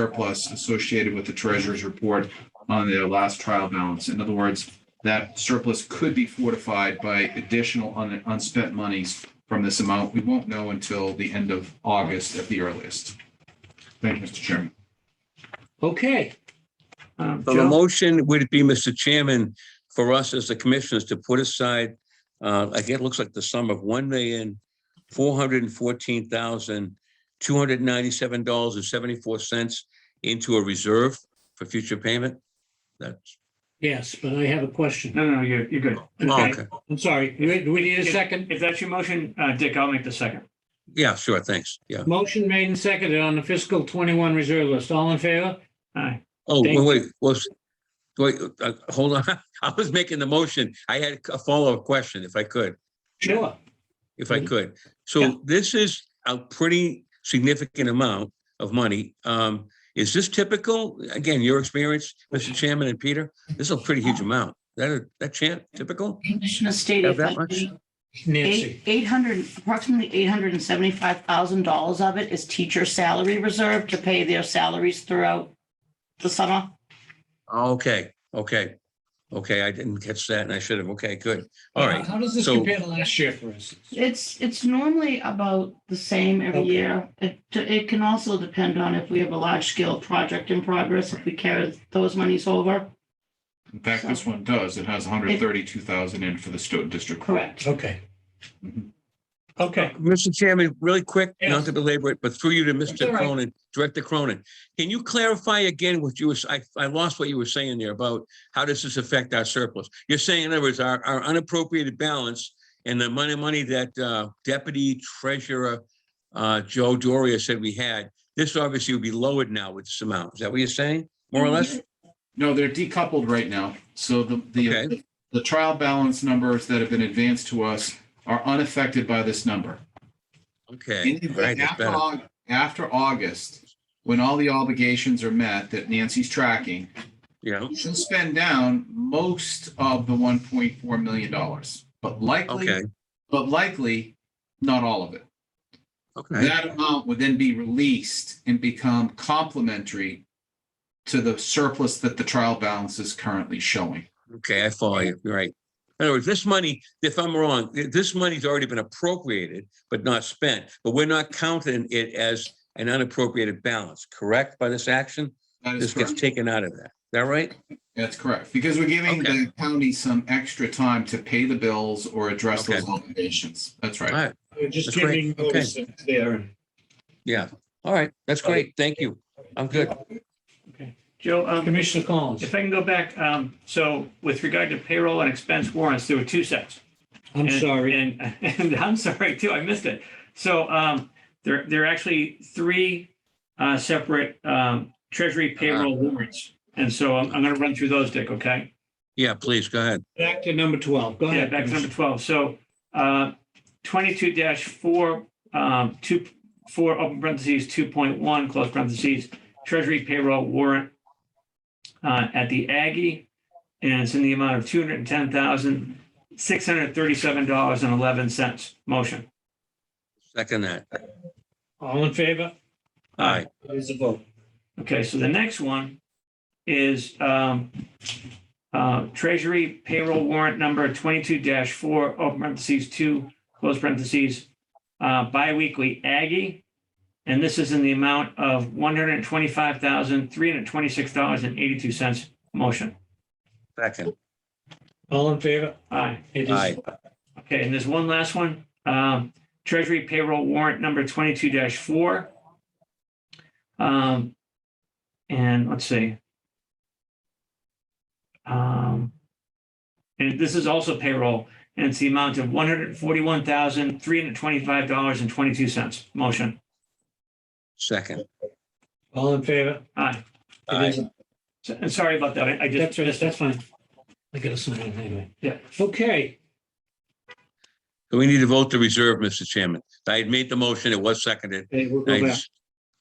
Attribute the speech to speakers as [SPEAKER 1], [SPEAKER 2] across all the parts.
[SPEAKER 1] surplus associated with the treasurer's report on their last trial balance. In other words, that surplus could be fortified by additional un- unspent monies from this amount. We won't know until the end of August at the earliest. Thank you, Mr. Chairman.
[SPEAKER 2] Okay. Um,
[SPEAKER 3] So the
[SPEAKER 2] Joe?
[SPEAKER 3] motion would be, Mr. Chairman, for us as the commissioners to put aside, uh, I guess it looks like the sum of one million, four hundred and fourteen thousand, two hundred and ninety-seven dollars and seventy-four cents into a reserve for future payment? That's,
[SPEAKER 2] Yes, but I have a question.
[SPEAKER 4] No, no, no, you're, you're good.
[SPEAKER 3] oh,
[SPEAKER 2] Okay,
[SPEAKER 3] okay.
[SPEAKER 2] I'm sorry. Do we- do we need a
[SPEAKER 4] If-
[SPEAKER 2] second?
[SPEAKER 4] If that's your motion, uh, Dick, I'll make the second.
[SPEAKER 3] Yeah, sure, thanks, yeah.
[SPEAKER 2] Motion made and seconded on the fiscal 21 reserve list. All in favor?
[SPEAKER 4] Aye.
[SPEAKER 3] Oh,
[SPEAKER 2] Thank
[SPEAKER 3] wait, wait, was, wait, uh, hold on, I was making the motion. I had a follow-up question, if I could.
[SPEAKER 2] Sure.
[SPEAKER 3] if I
[SPEAKER 2] Mhm.
[SPEAKER 3] could.
[SPEAKER 4] Yeah.
[SPEAKER 3] So this is a pretty significant amount of money. Um, is this typical? Again, your experience, Mr. Chairman and Peter, this is a pretty huge amount. That, that chan typical?
[SPEAKER 5] Commissioner State,
[SPEAKER 3] Have
[SPEAKER 5] if
[SPEAKER 3] that
[SPEAKER 5] I
[SPEAKER 3] much?
[SPEAKER 5] may,
[SPEAKER 2] Nancy.
[SPEAKER 5] eight, eight hundred, approximately eight hundred and seventy-five thousand dollars of it is teacher salary reserve to pay their salaries throughout the summer.
[SPEAKER 3] Okay, okay, okay. I didn't catch that and I should have. Okay, good. All right.
[SPEAKER 2] How does this
[SPEAKER 3] so-
[SPEAKER 2] compare to last year, for instance?
[SPEAKER 5] It's, it's normally about the same every
[SPEAKER 2] Okay.
[SPEAKER 5] year. It, it can also depend on if we have a large-scale project in progress, if we carry those monies over.
[SPEAKER 1] In fact, this one does. It has 132,000 in for the Stoughton District. Court.
[SPEAKER 5] Correct.
[SPEAKER 2] Okay.
[SPEAKER 1] Mhm.
[SPEAKER 2] Okay.
[SPEAKER 3] Mr. Chairman, really quick, not
[SPEAKER 2] Yes.
[SPEAKER 3] to belabor it, but through you to
[SPEAKER 2] all
[SPEAKER 3] Mr.
[SPEAKER 2] right.
[SPEAKER 3] Cronin, Director Cronin. Can you clarify again what you was, I, I lost what you were saying there about how does this affect our surplus? You're saying, in other words, our, our unappropriated balance and the money, money that uh, Deputy Treasurer uh, Joe Doria said we had, this obviously would be lowered now with this amount. Is that what you're saying, more
[SPEAKER 2] Mm-hmm.
[SPEAKER 3] or less?
[SPEAKER 1] No, they're decoupled right now. So the, the
[SPEAKER 3] Okay,
[SPEAKER 1] the trial balance numbers that have been advanced to us are unaffected by this number.
[SPEAKER 3] okay.
[SPEAKER 1] In the
[SPEAKER 3] All right,
[SPEAKER 1] event
[SPEAKER 3] that's
[SPEAKER 1] After
[SPEAKER 3] better.
[SPEAKER 1] Aug- after August, when all the obligations are met that Nancy's tracking,
[SPEAKER 3] Yeah,
[SPEAKER 1] she'll spend down most of the one point four million dollars. But likely,
[SPEAKER 3] okay,
[SPEAKER 1] but likely, not all of it.
[SPEAKER 3] okay.
[SPEAKER 1] That amount would then be released and become complementary to the surplus that the trial balance is currently showing.
[SPEAKER 3] Okay, I follow you. You're right. In other words, this money, if I'm wrong, th- this money's already been appropriated but not spent, but we're not counting it as an unappropriated balance, correct? By this action,
[SPEAKER 1] That is
[SPEAKER 3] this gets
[SPEAKER 1] correct.
[SPEAKER 3] taken out of that. Is that right?
[SPEAKER 1] That's correct. Because we're giving
[SPEAKER 3] Okay.
[SPEAKER 1] the county some extra time to pay the bills or address
[SPEAKER 3] Okay.
[SPEAKER 1] those obligations. That's
[SPEAKER 3] All
[SPEAKER 1] right.
[SPEAKER 3] right.
[SPEAKER 2] We're Just
[SPEAKER 3] That's great. Okay.
[SPEAKER 2] giving notice that it's there.
[SPEAKER 3] Yeah. All right. That's great. Thank you. I'm good.
[SPEAKER 4] Joe, um,
[SPEAKER 2] Commissioner Collins,
[SPEAKER 4] if I can go back, um, so with regard to payroll and expense warrants, there were two sets.
[SPEAKER 2] I'm
[SPEAKER 4] And-
[SPEAKER 2] sorry.
[SPEAKER 4] And, and I'm sorry too, I missed it. So, um, there, there are actually three, uh, separate, um, treasury payroll warrants. And so I'm, I'm gonna run through those, Dick, okay?
[SPEAKER 3] Yeah, please go ahead.
[SPEAKER 2] Back to number 12. Go
[SPEAKER 4] Yeah,
[SPEAKER 2] ahead.
[SPEAKER 4] back to number
[SPEAKER 2] Commissioner.
[SPEAKER 4] twelve. So uh, twenty-two four, um, two, four, open parentheses, two point one, close parentheses, treasury payroll warrant uh, at the Aggie, and it's in the amount of two hundred and ten thousand, six hundred and thirty-seven dollars and eleven cents. Motion.
[SPEAKER 3] Second that.
[SPEAKER 2] All in favor?
[SPEAKER 3] All right.
[SPEAKER 2] It is a vote.
[SPEAKER 4] Okay, so the next one is um, uh, Treasury payroll warrant number twenty-two four, open parentheses, two, close parentheses, uh, biweekly Aggie. And this is in the amount of one hundred and twenty-five thousand, three hundred and twenty-six dollars and eighty-two cents. Motion.
[SPEAKER 3] Second.
[SPEAKER 2] All in favor?
[SPEAKER 4] Aye.
[SPEAKER 2] It
[SPEAKER 3] Aye.
[SPEAKER 2] is.
[SPEAKER 4] Okay, and there's one last one. Um, Treasury payroll warrant number twenty-two four. Um, and let's see. Um, and this is also payroll, and it's the amount of one hundred forty-one thousand, three hundred twenty-five dollars and twenty-two cents. Motion.
[SPEAKER 3] Second.
[SPEAKER 2] All in favor?
[SPEAKER 4] Aye.
[SPEAKER 2] It is. a-
[SPEAKER 4] So- And sorry about that. I- I just.
[SPEAKER 2] That's right. That's fine. I got to sign it anyway.
[SPEAKER 4] Yeah.
[SPEAKER 2] Okay.
[SPEAKER 3] So we need to vote to reserve, Mr. Chairman. I had made the motion. It was seconded.
[SPEAKER 2] Okay, we'll
[SPEAKER 3] I
[SPEAKER 2] go back.
[SPEAKER 3] just-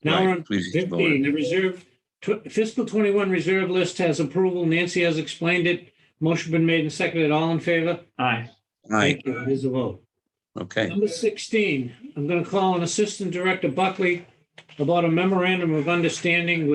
[SPEAKER 2] Now
[SPEAKER 3] right,
[SPEAKER 2] we're on
[SPEAKER 3] please vote.
[SPEAKER 2] 15, the reserve, tw- fiscal 21 reserve list has approval. Nancy has explained it. Motion been made and seconded. All in favor?
[SPEAKER 4] Aye.
[SPEAKER 3] All right.
[SPEAKER 2] Thank you. It is a vote.
[SPEAKER 3] Okay.
[SPEAKER 2] Number 16, I'm going to call on Assistant Director Buckley about a memorandum of understanding with